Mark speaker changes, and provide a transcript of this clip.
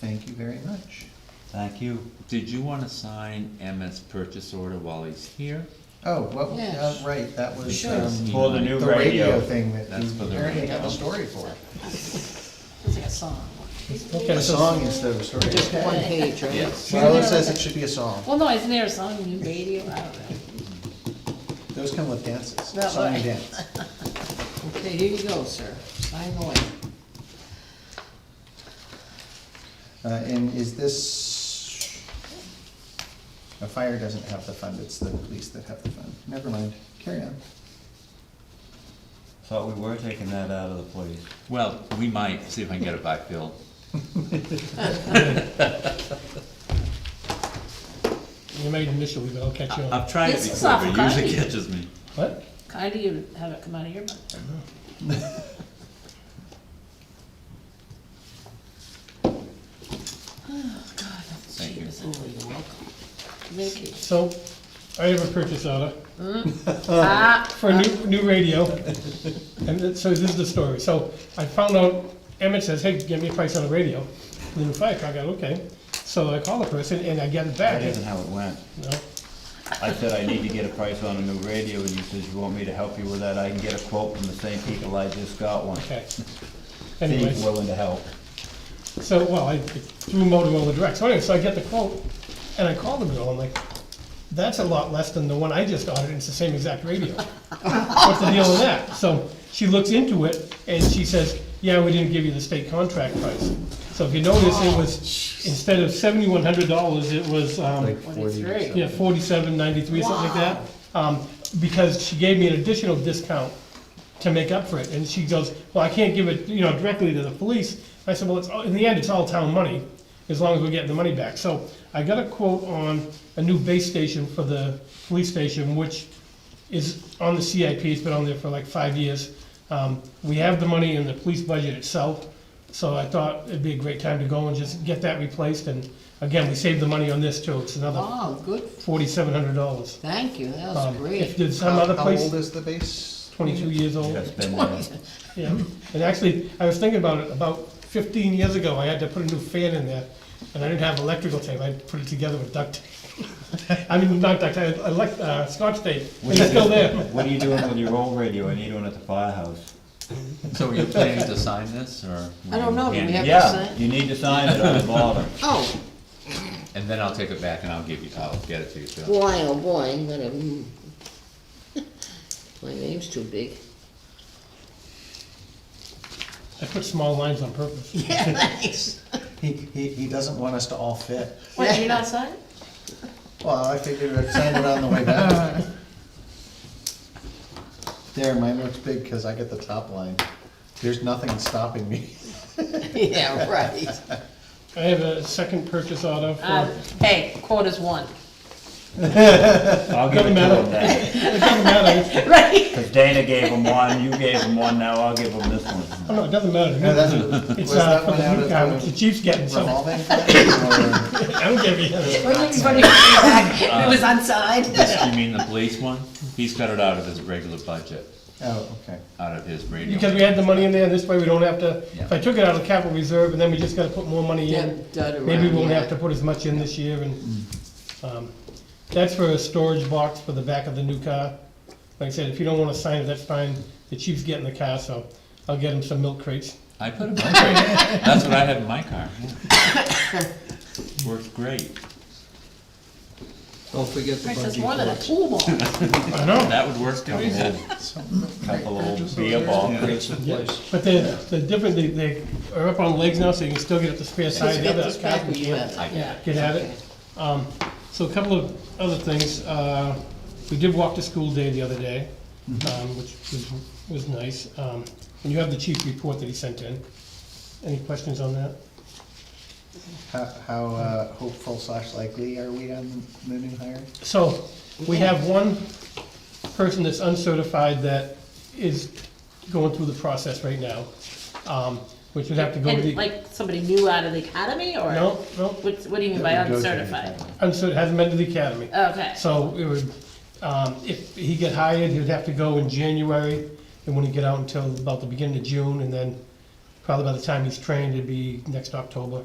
Speaker 1: Thank you very much.
Speaker 2: Thank you. Did you wanna sign Emmett's purchase order while he's here?
Speaker 1: Oh, well,
Speaker 3: Yes.
Speaker 1: yeah, right, that was,
Speaker 3: Sure.
Speaker 1: um,
Speaker 2: For the new
Speaker 1: the radio thing that
Speaker 2: That's
Speaker 1: you
Speaker 2: for the
Speaker 1: apparently have
Speaker 2: radio.
Speaker 1: a story for.
Speaker 3: It's like a song.
Speaker 1: A song instead of a story.
Speaker 3: Just one page, right?
Speaker 2: Yes.
Speaker 1: Marlo says it should be a song.
Speaker 3: Well, no, isn't there a song in radio? I don't know.
Speaker 1: Those come with dances,
Speaker 3: That
Speaker 1: song and
Speaker 3: way.
Speaker 1: dance.
Speaker 3: Okay, here you go, sir. Sign away.
Speaker 1: Uh, and is this, a fire doesn't have the fund, it's the police that have the fund. Never mind, carry on.
Speaker 4: Thought we were taking that out of the police.
Speaker 2: Well, we might, see if I can get it back filled.
Speaker 5: You made initially, but I'll catch you on.
Speaker 2: I've tried it
Speaker 3: This is
Speaker 2: before, but
Speaker 3: awful
Speaker 2: it usually
Speaker 3: kind.
Speaker 2: catches me.
Speaker 5: What?
Speaker 3: Kind of you to have it come out of your mouth. Oh, God, that's
Speaker 2: Thank
Speaker 3: cheap.
Speaker 2: you.
Speaker 3: isn't it? Oh, You're welcome. Mickey.
Speaker 5: So, I have a purchase order
Speaker 3: Ah,
Speaker 5: for a new, new radio. And it- so this is the story. So I found out, Emmett says, hey, give me a price on the radio. And then the fire truck, I go, okay. So I call the person and I get it
Speaker 4: That
Speaker 5: back.
Speaker 4: isn't how it went.
Speaker 5: No,
Speaker 4: I said I need to get a price on a new radio, and you says you want me to help you with that, I can get a quote from the same people I just got one.
Speaker 5: okay.
Speaker 4: Be
Speaker 5: Anyways,
Speaker 4: willing to help.
Speaker 5: so, well, I threw Motorola direct. So anyway, so I get the quote and I call the girl. I'm like, that's a lot less than the one I just ordered. and It's the same exact radio. What's the deal with that? So she looks into it and she says, yeah, we didn't give you the state contract price. So if you notice, it was, instead of seventy-one hundred dollars, it was, um,
Speaker 3: twenty-three.
Speaker 5: yeah, forty-seven ninety-three, something like that. Um, because she gave me an additional discount to make up for it. And she goes, well, I can't give it, you know, directly to the police. I said, well, it's, all- in the end, it's all town money, as long as we're getting the money back. So I got a quote on a new base station for the police station, which is on the CIP, it's been on there for like five years. Um, we have the money in the police budget itself, so I thought it'd be a great time to go and just get that replaced, and again, we saved the money on this too, it's another
Speaker 3: Oh, good.
Speaker 5: forty-seven hundred dollars. Um,
Speaker 3: Thank you. That was
Speaker 5: uh, If
Speaker 3: great.
Speaker 5: there's some other
Speaker 1: How- How old
Speaker 5: place,
Speaker 1: is the base?
Speaker 5: twenty-two years old,
Speaker 4: That's been there.
Speaker 5: yeah, and actually, I was thinking about it, about fifteen years ago, I had to put a new fan in there, and I didn't have electrical tape, I had to put it together with duct tape. I mean, not duct tape, I like, uh, scotch tape, and it's still there.
Speaker 4: What are you doing with your old radio? I need one at the firehouse.
Speaker 2: So are you planning to sign this, or?
Speaker 3: I don't know, do we have to
Speaker 4: Yeah,
Speaker 3: sign?
Speaker 4: you need to sign it on the bottom.
Speaker 3: Oh,
Speaker 2: And then I'll take it back and I'll give you, I'll get it to you, Phil.
Speaker 3: boy, oh boy, I'm gonna, mm. my name's too big.
Speaker 5: I put small lines on purpose.
Speaker 3: Yeah, thanks.
Speaker 1: He, he, he doesn't want us to all fit.
Speaker 3: What, you're not signing?
Speaker 1: Well, I figured I'd sign it on the way back. There, mine looks big because I get the top line. There's nothing stopping me.
Speaker 3: Yeah, right.
Speaker 5: I have a second purchase auto
Speaker 3: Um,
Speaker 5: for,
Speaker 1: Ah.
Speaker 3: hey, quota's one.
Speaker 4: I'll give it to
Speaker 5: Doesn't matter.
Speaker 4: him then.
Speaker 5: it doesn't matter,
Speaker 3: Right.
Speaker 4: Cause Dana gave him one, you gave him one, now I'll give him this one.
Speaker 5: oh no, it doesn't matter.
Speaker 1: No, that's-
Speaker 5: It's
Speaker 1: Was
Speaker 5: uh,
Speaker 1: that
Speaker 5: for
Speaker 1: one
Speaker 5: the
Speaker 1: out
Speaker 5: new car, which the
Speaker 1: of
Speaker 5: chief's getting,
Speaker 1: the
Speaker 5: so
Speaker 1: revolving fund? or-
Speaker 5: I'm giving you.
Speaker 3: It was unsigned.
Speaker 2: This, you mean the police one? He's got it out of his regular budget,
Speaker 1: Oh, okay.
Speaker 2: out of his radio.
Speaker 5: Because we had the money in there, this way we don't have to, if
Speaker 2: Yeah.
Speaker 5: I took it out of the capital reserve and then we just gotta put more money in, maybe we won't have to put as much in this year and, um, that's for a storage box for the back of the new car. Like I said, if you don't wanna sign it, that's fine, the chief's getting the car, so I'll get him some milk crates.
Speaker 2: I put it in my car. That's what I have in my car. yeah. Works great.
Speaker 6: Don't forget the
Speaker 3: Princess
Speaker 6: bungee
Speaker 3: one of the
Speaker 6: cords.
Speaker 3: pool ball.
Speaker 5: I know,
Speaker 2: That would work too.
Speaker 4: Couple old- Couple old beer ball crates.
Speaker 6: Someplace.
Speaker 5: but they're, they're different, they, they are up on legs now, so you can still get at the spare side, the other car can
Speaker 3: Yeah.
Speaker 5: get at it. Um, so a couple of other things, uh, we did walk to school day the other day, um, which was, was nice. Um, and you have the chief report that he sent in. Any questions on that?
Speaker 1: How, how uh, hopeful slash likely are we on the new hire?
Speaker 5: So, we have one person that's uncertified that is going through the process right now, um, which would have to go to
Speaker 3: And
Speaker 5: the.
Speaker 3: like somebody new out of the academy or?
Speaker 5: No, no,
Speaker 3: What, what do you mean by
Speaker 1: That we go through the
Speaker 3: uncertified?
Speaker 1: academy.
Speaker 5: uncertified, hasn't been to the academy.
Speaker 3: Okay.
Speaker 5: So it would, um, if he get hired, he'd have to go in January, and wouldn't get out until about the beginning of June, and then probably by the time he's trained, it'd be next October.